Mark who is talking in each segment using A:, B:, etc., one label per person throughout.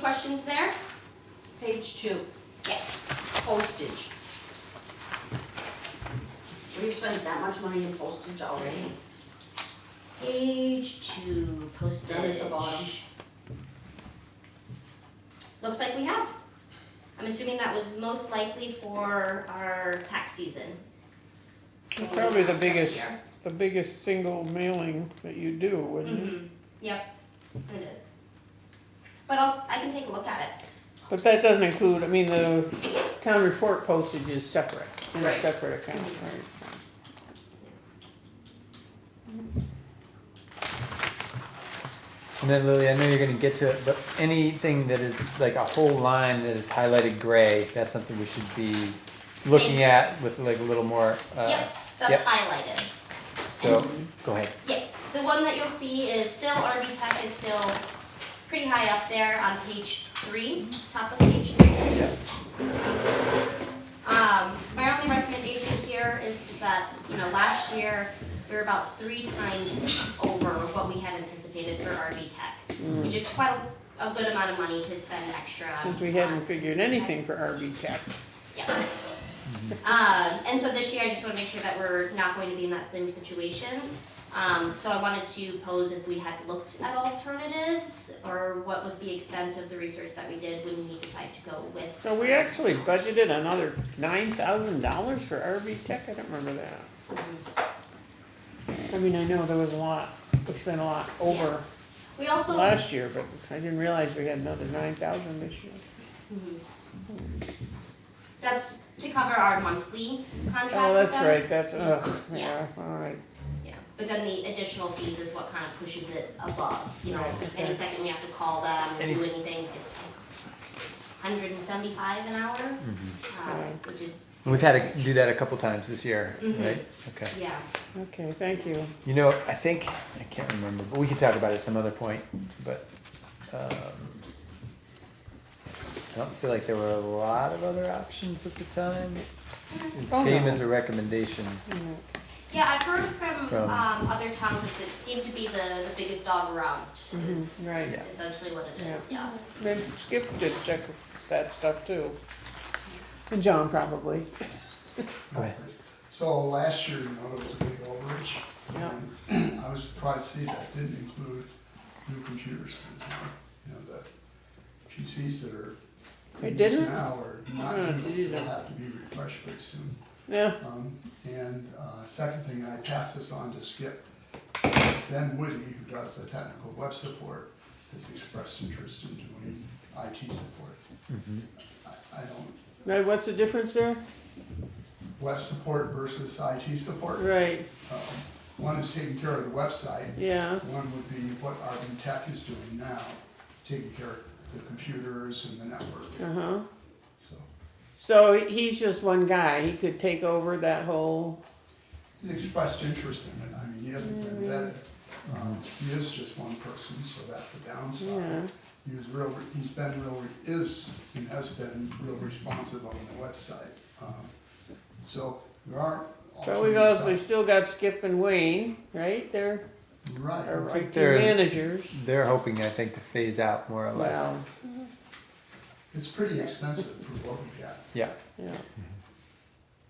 A: questions there?
B: Page two,
A: Yes.
B: postage. Were you spending that much money in postage already?
A: Page two, postage.
B: Down at the bottom.
A: Looks like we have. I'm assuming that was most likely for our tax season.
C: It's probably the biggest,
A: Here.
C: the biggest single mailing that you do, wouldn't it?
A: Mm-hmm, yep, it is. But I'll, I can take a look at it.
C: But that doesn't include, I mean, the town report postage is separate, in a
B: Right.
C: separate account, right?
D: And then Lily, I know you're gonna get to it, but anything that is like a whole line that is highlighted gray, that's something we should be looking at with like a little more, uh,
A: Yep, that's
D: yep.
A: highlighted.
D: so, go ahead.
A: Yeah, the one that you'll see is still RV Tech is still pretty high up there on page three, top of page three. Um, my only recommendation here is is that, you know, last year, we were about three times over what we had anticipated for RV Tech, which is quite a, a good amount of money to spend extra.
C: Since we
A: on.
C: hadn't figured anything for RB Tech.
A: Yeah. Um, and so this year, I just wanna make sure that we're not going to be in that same situation. Um, so I wanted to pose if we had looked at alternatives, or what was the extent of the research that we did when we decided to go with.
C: So we actually budgeted another nine thousand dollars for RB Tech, I don't remember that.
A: mm-hmm.
C: I mean, I know there was a lot, we spent a lot over
A: We also,
C: last year, but I didn't realize we had another nine thousand this year.
A: mm-hmm. that's to cover our monthly contract
C: Oh,
A: with
C: that's
A: them.
C: right, that's, ugh, yeah,
A: Yeah.
C: alright.
A: Yeah, but then the additional fees is what kind of pushes it above, you know,
C: Right,
A: any
C: okay.
A: second we have to call them and
D: Any-
A: do anything, it's hundred and seventy-five an hour, um, which is,
D: And We've had to do that a couple times this year, right? Okay.
A: yeah.
C: Okay, thank you.
D: You know, I think, I can't remember, but we can talk about it some other point, but, um, I don't feel like there were a lot of other options at the time. It
C: Oh,
D: came
C: no.
D: as a recommendation.
A: Yeah, I've heard from,
D: From-
A: um, other towns that it seemed to be the, the biggest dog around is
C: Right.
D: Yeah.
A: essentially what it is, Mm-hmm. yeah.
C: Then Skip did check that stuff too. And John probably.
D: Go ahead.
E: So last year, you know, there was a big overage.
C: Yeah.
E: and I was surprised to see that didn't include new computers, for example. you know, the PCs that are
C: It
E: in use
C: didn't?
E: now are not
C: Oh,
E: new,
C: geez.
E: they'll have to be refreshed pretty soon.
C: Yeah,
E: Um, and, uh, second thing, I passed this on to Skip. Ben Woody, who does the technical web support, has expressed interest in doing IT support. I, I don't,
C: now what's the difference there?
E: web support versus IT support.
C: Right,
E: Um, One is taking care of the website.
C: yeah,
E: One would be what RB Tech is doing now, taking care of the computers and the network,
C: uh-huh.
E: so.
C: So he's just one guy, he could take over that whole,
E: He expressed interest in it, I mean, he hasn't been vetted. Um, He is just one person, so that's a
C: yeah,
E: downside. He was real, he's been real, is, and has been real responsive on the website. Um, So there aren't.
C: so we've
E: alternatives
C: also, we still got Skip and Wayne, right, they're
E: out-
C: our
E: Right,
C: IT
D: they're-
C: managers.
D: They're hoping, I think, to phase out more or less.
C: Wow,
E: it's pretty expensive for what we got.
D: Yeah.
C: yeah,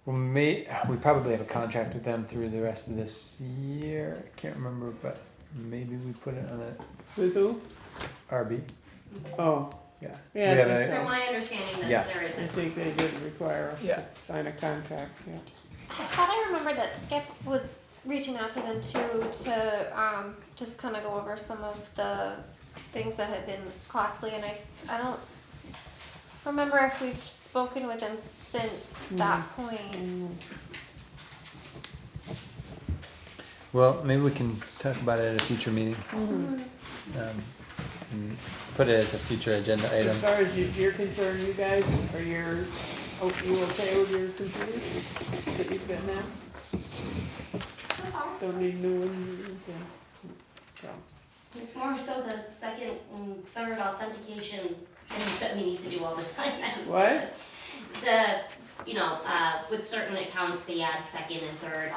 D: Well, may, we probably have a contract with them through the rest of this year. I can't remember, but maybe we put it on a
C: with who?
D: RB.
C: Oh,
D: Yeah.
C: Yeah,
D: We
C: I
D: have
A: From
D: a,
C: think
A: my understanding
D: Yeah.
A: that there
C: I
A: isn't.
C: think they did require us to
D: Yeah.
C: sign a contract, yeah.
F: I thought I remembered that Skip was reaching out to them too to um, just kind of go over some of the things that had been costly, and I I don't remember if we've spoken with them since that point.
D: well, maybe we can talk about it at a future meeting.
C: Mm-hmm.
D: Um, and put it as a future agenda
C: As
D: item.
C: far as you- you're concerned, you guys, are your, oh, you okay with your computers that you've got now? Don't need new ones, okay. So,
A: It's more so the second and third authentication things that we need to do all the time. That's
C: What?
A: The, you know, uh, with certain accounts, they add second and third